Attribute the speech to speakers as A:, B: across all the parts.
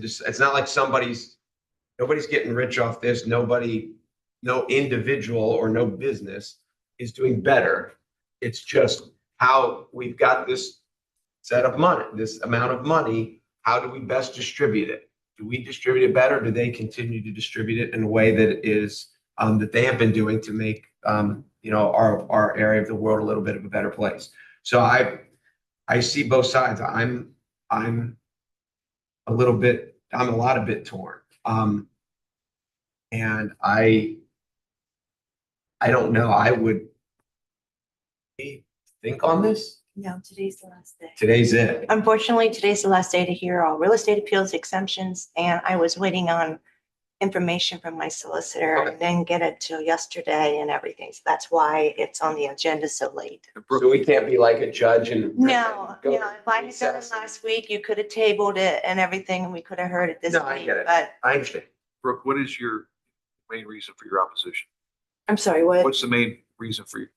A: Just, it's not like somebody's, nobody's getting rich off this. Nobody, no individual or no business is doing better. It's just how we've got this set of money, this amount of money. How do we best distribute it? Do we distribute it better? Do they continue to distribute it in a way that is, um, that they have been doing to make, um, you know, our, our area of the world a little bit of a better place? So I, I see both sides. I'm, I'm a little bit, I'm a lot of bit torn. Um, and I, I don't know, I would eh, think on this.
B: No, today's the last day.
A: Today's it.
B: Unfortunately, today's the last day to hear all real estate appeals exemptions, and I was waiting on information from my solicitor
A: Okay.
B: and then get it till yesterday and everything. So that's why it's on the agenda so late.
A: So we can't be like a judge and.
B: No,
A: go
B: no, if I had done it
A: recess.
B: last week, you could have tabled it and everything, and we could have heard it this
A: No, I
B: week,
A: get it.
B: but
A: I understand.
C: Brooke, what is your main reason for your opposition?
D: I'm sorry, what?
C: What's the main reason for, your-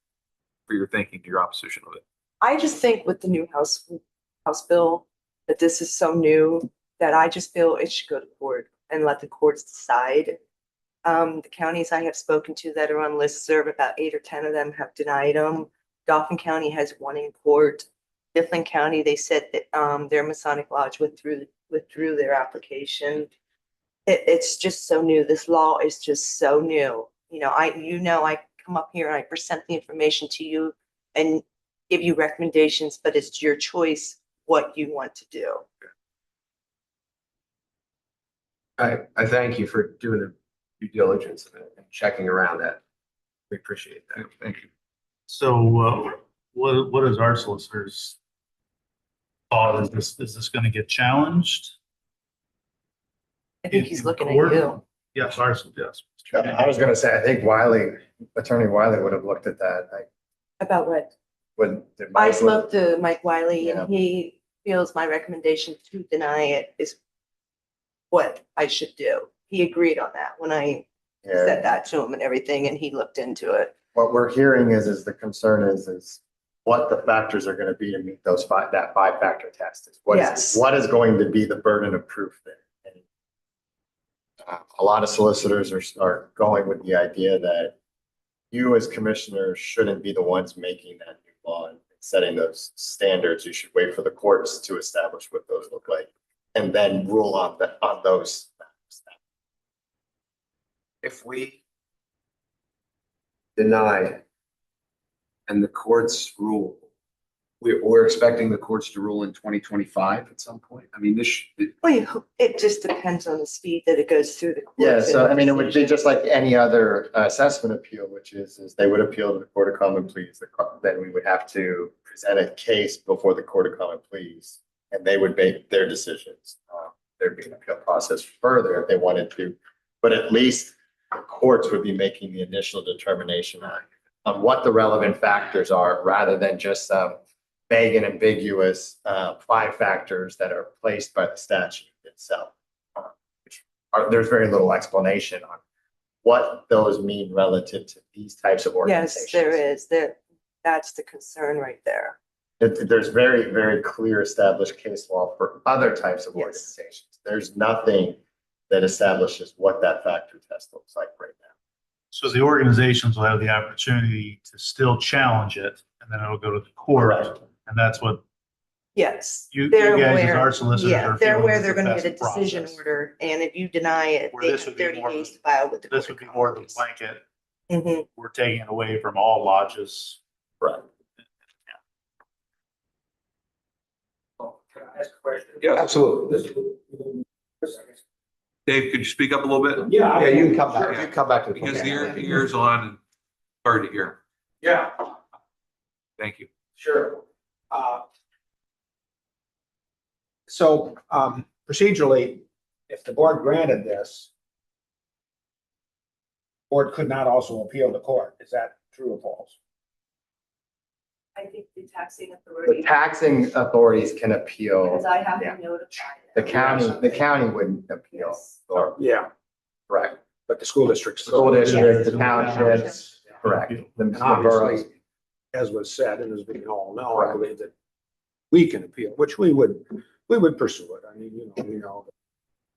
C: for your thinking, your opposition of it?
D: I just think with the new House, House bill, that this is so new that I just feel it should go to court and let the courts decide. Um, the counties I have spoken to that are on listserv, about eight or ten of them have denied them. Dauphin County has one in court. Mifflin County, they said that, um, their Masonic Lodge withdrew, withdrew their application. It, it's just so new. This law is just so new. You know, I, you know, I come up here and I present the information to you and give you recommendations, but it's your choice what you want to do.
A: I, I thank you for doing the due diligence and checking around that. We appreciate that.
C: Thank you.
E: So uh, what, what is our solicitor's thought? Is this, is this going to get challenged?
D: I think
E: think he's
D: he's
E: In looking
D: looking
E: at
D: at
E: court?
D: you.
E: you. Yes, ours, yes.
F: I was gonna say, I think Wiley, Attorney Wiley would have looked at that, I
D: About what?
F: wouldn't. did
D: I
F: Mike-
D: spoke to Mike Wiley
F: Yeah.
D: and he feels my recommendation to deny it is what I should do. He agreed on that when I
F: Yeah,
D: said that to him and everything, and he looked into it.
F: what we're hearing is, is the concern is, is what the factors are gonna be to meet those five, that five-factor test. is What is,
D: Yes.
F: what is going to be the burden of proof there? And, uh, A lot of solicitors are, are going with the idea that you as commissioners shouldn't be the ones making that new law and setting those standards. You should wait for the courts to establish what those look like and then rule on the, on those.
A: if we deny it and the courts rule, we're, we're expecting the courts to rule in twenty twenty-five at some point. I mean, this, sh- it-
D: Well, you- it just depends on the speed that it goes through the courts.
F: Yeah, so
D: and
F: I mean, it would be
D: decision.
F: just like any other assessment appeal, which is, is they would appeal to the Court of Common Pleas. the co- Then we would have to present a case before the Court of Common Pleas. And they would make their decisions. Uh, There'd be an appeal process further if they wanted to. But at least the courts would be making the initial determination on, on what the relevant factors are, rather than just some vague and ambiguous uh, five factors that are placed by the statute itself are, there's very little explanation on what those mean relative to these types of organizations.
D: Yes, there is. There, that's the concern right there.
F: It- there's very, very clear established case law for other types of
D: Yes.
F: organizations. There's nothing that establishes what that factor test looks like right now.
E: So the organizations will have the opportunity to still challenge it and then it'll go to the court. And that's what
D: Yes.
E: you, you
D: They're
E: guys, as
D: aware.
E: our solicitors
D: Yeah,
E: are
D: they're
E: feeling
D: aware
E: is
D: they're
E: the
D: gonna get a
E: best process.
D: decision order, and if you deny it,
E: Where
D: they
E: this
D: have
E: would be
D: thirty
E: more
D: days
E: than-
D: to file with the.
E: This
D: Court
E: would be
D: of
E: more than
D: Commons.
E: blanket.
D: Mhm.
E: We're taking it away from all lodges.
F: Right.
C: Yeah,
A: absolutely.
C: Dave, could you speak up a little bit?
G: Yeah.
A: Yeah, you can come back,
C: Sure.
A: you can come back to the.
C: Because the ear, the ear's on and hard to hear.
G: Yeah,
C: Thank you.
G: sure. Uh, So um, procedurally, if the board granted this, board could not also appeal the court. Is that true or false?
D: I think the taxing
F: The
D: authority,
F: taxing authorities can appeal.
D: because I have
F: Yeah.
D: to notify.
F: The
D: them.
F: county, the county wouldn't appeal.
D: Yes.
F: Or,
G: Yeah.
F: correct,
G: But the school districts.
F: School district, the
D: townships.
F: townships, correct. The
G: And
F: the boroughs,
G: obviously, as was said, and as we all know, I
F: Correct.
G: believe that we can appeal, which we would, we would pursue it. I mean, you know, we know,